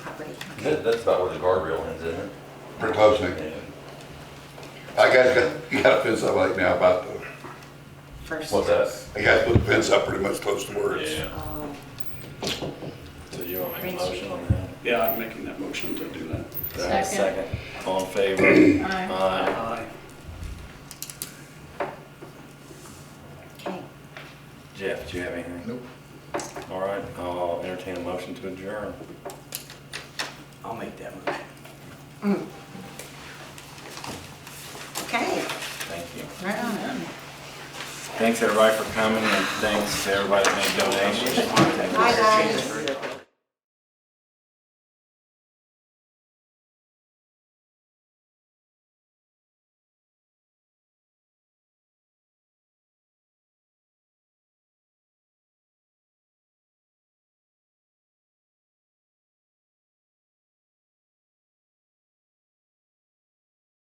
property. That, that's about where the guardrail ends, isn't it? pretty closely. Yeah. I guys got, you gotta fence up right now about the, First. What's that? I gotta put the fence up pretty much close to where it's. Yeah, Oh, so you want to make a motion on that? Yeah, I'm making that motion to do that. Do I have a Second. All in favor? Aye. Aye. Aye. okay. Jeff, do you have anything? Nope. All right, I'll entertain a motion to adjourn. I'll make that motion. Okay, Thank you. right on in. Thanks, everybody, for coming, and thanks to everybody that made donations. Bye, guys.